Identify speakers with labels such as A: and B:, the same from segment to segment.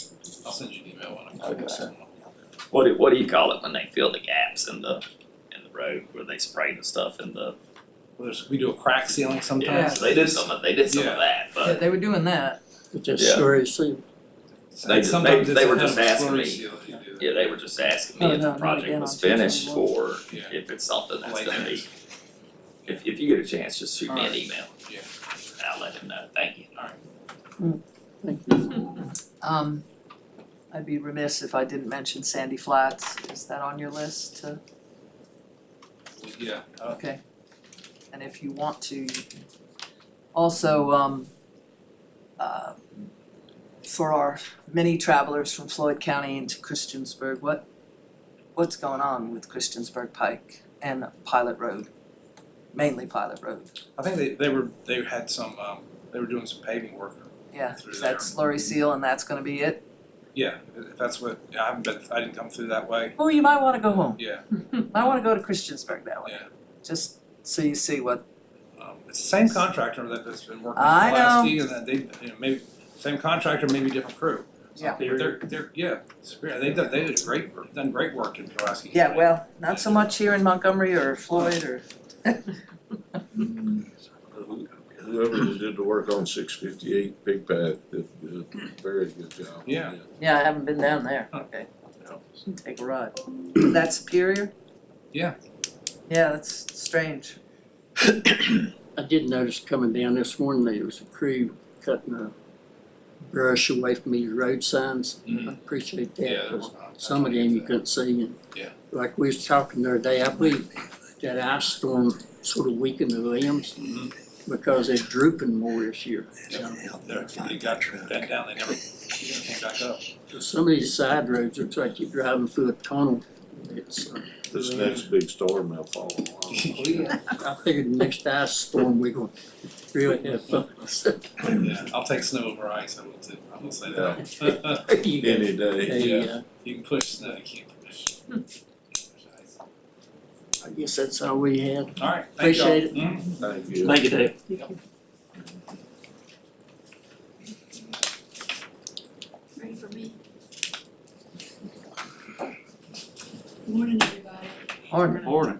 A: send you an email when I.
B: Okay, sir.
C: What do, what do you call it when they fill the gaps in the, in the road where they spray the stuff in the,
A: Well, there's, we do a crack sealing
C: yeah,
A: sometimes.
C: so they did some of, they did some
A: Yeah.
C: of that,
D: Yeah,
C: but
D: they were doing that.
B: But that's
C: Yeah.
B: seriously,
C: They just-
A: Sometimes
C: they-
A: it's
C: they were
A: kind of
C: just asking
A: slurry
C: me.
A: seal you do.
C: yeah, they were just asking me
D: Oh,
C: if
D: no,
C: the
D: not
C: project
D: again,
C: was
D: I'll check
C: finished
D: on
C: or
A: Yeah.
C: if it's something that's
A: Like
C: gonna
A: that.
C: be, if, if you get a chance, just shoot me an
A: Alright.
C: email.
A: Yeah.
C: And I'll let them know, thank you. Alright.
B: thank you.
D: Um, I'd be remiss if I didn't mention Sandy Flats. Is that on your list to,
A: Yeah, uh,
D: okay? And if you want to, you can. Also, um, uh, for our many travelers from Floyd County into Christiansburg, what, what's going on with Christiansburg Pike and Pilot Road? Mainly Pilot Road,
A: I think they, they were, they had some, um, they were doing some paving work.
D: yeah.
A: Through
D: Is
A: there.
D: that slurry seal and that's gonna be it?
A: Yeah, if that's what, yeah, I haven't been, I didn't come through that way,
D: Oh, you might wanna go home.
A: yeah.
D: I wanna go to Christiansburg that way.
A: Yeah.
D: Just so you see what,
A: Um, it's the same contractor that has been working
D: I
A: on last
D: know.
A: year, and they, you know, maybe, same contractor, maybe different crew.
D: Yeah.
A: But They're, they're, yeah, Superior, they did, they did great, work- done great work in Pulaski.
D: yeah, well, not so much here in Montgomery or Floyd or,
E: Who- Whoever did the work on six fifty-eight Big Path did did a very good job.
A: Yeah.
D: yeah, I haven't been down there, okay. Take a ride. That's Superior?
A: Yeah.
D: Yeah, that's strange.
B: I did notice coming down this morning, there was a crew cutting the brush away from these road signs. I
A: Mhm.
B: appreciate
A: Yeah,
B: that,
A: there's
B: 'cause
A: not-
B: some of them you couldn't see and
A: Yeah.
B: like we was talking the other day, I believe that ice storm sort of weakened the limbs
A: Mhm.
B: because they're drooping more this year. So,
A: They're, they got bent down, they never, they never came back up.
B: Some of these side roads, looks like you're driving through a tunnel. It's, uh,
E: This next big storm they'll follow along.
A: Yeah,
B: I figured the next ice storm, we gonna really have fun. So,
A: I'll take snow over ice, I will too, I will say that.
B: there you go.
E: Any
B: There
E: day,
B: you
A: Yeah.
B: go.
A: You can push snow, you can't push.
B: Hmm. I guess that's all we had.
A: Alright, thank y'all.
B: Appreciate it.
A: Mhm.
E: thank you.
C: you, Dave.
F: Ready for me? Morning, everybody.
D: Morning.
C: Morning.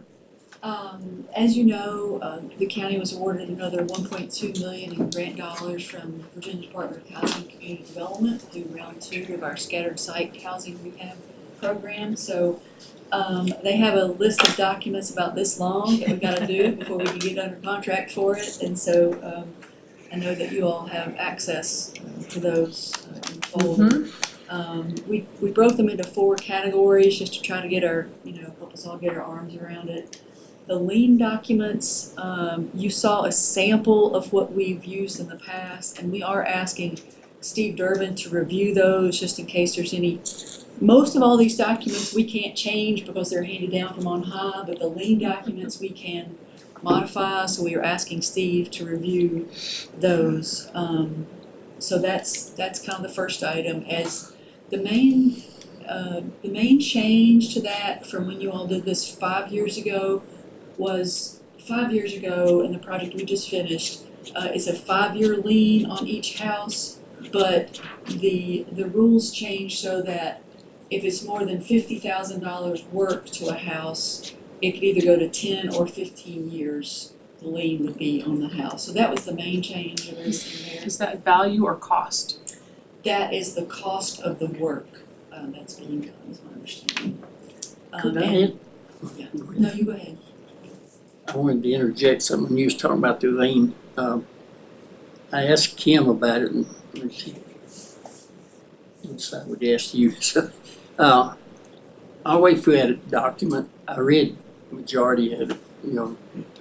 F: Um, as you know, uh, the county was awarded another one point two million in grant dollars from the Virginia Department of Housing and Community Development through round two of our scattered site housing rehab program, so um, they have a list of documents about this long that we gotta do before we can get under contract for it, and so, um, I know that you all have access uh, to those uh, in full. Um, we, we broke them into four categories just to try to get our, you know, help us all get our arms around it. The lean documents, um, you saw a sample of what we've used in the past, and we are asking Steve Durbin to review those just in case there's any. Most of all these documents we can't change because they're handed down from on high, but the lean documents we can modify, so we are asking Steve to review those. Um, so that's, that's kind of the first item as the main, uh, the main change to that from when you all did this five years ago was five years ago in the project we just finished, uh, it's a five-year lien on each house, but the, the rules change so that if it's more than fifty thousand dollars worth to a house, it could either go to ten or fifteen years, the lien would be on the house. So that was the main change of everything there.
G: Is that value or cost?
F: That is the cost of the work, um, that's being done, is my understanding. Um,
B: Could I
F: and-
B: add?
F: Yeah. No, you go ahead.
B: I wanted to interject something you was talking about the lien. Um, I asked Kim about it and and she, yes, I would ask you, so, uh, I wait for that document. I read majority of it, you know,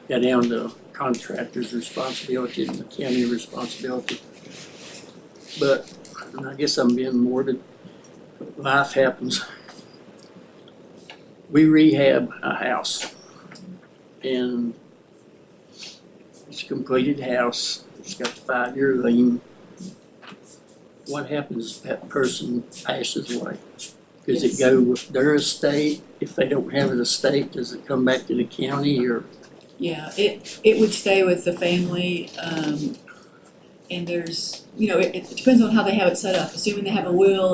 B: got down to contractor's responsibility and the county responsibility. But, and I guess I'm being morbid, but life happens. We rehab a house and it's a completed house, it's got the five-year lien. What happens if that person passes away? Does it
F: Yes.
B: go with their estate? If they don't have an estate, does it come back to the county or?
F: Yeah, it, it would stay with the family, um, and there's, you know, it, it depends on how they have it set up, assuming they have a will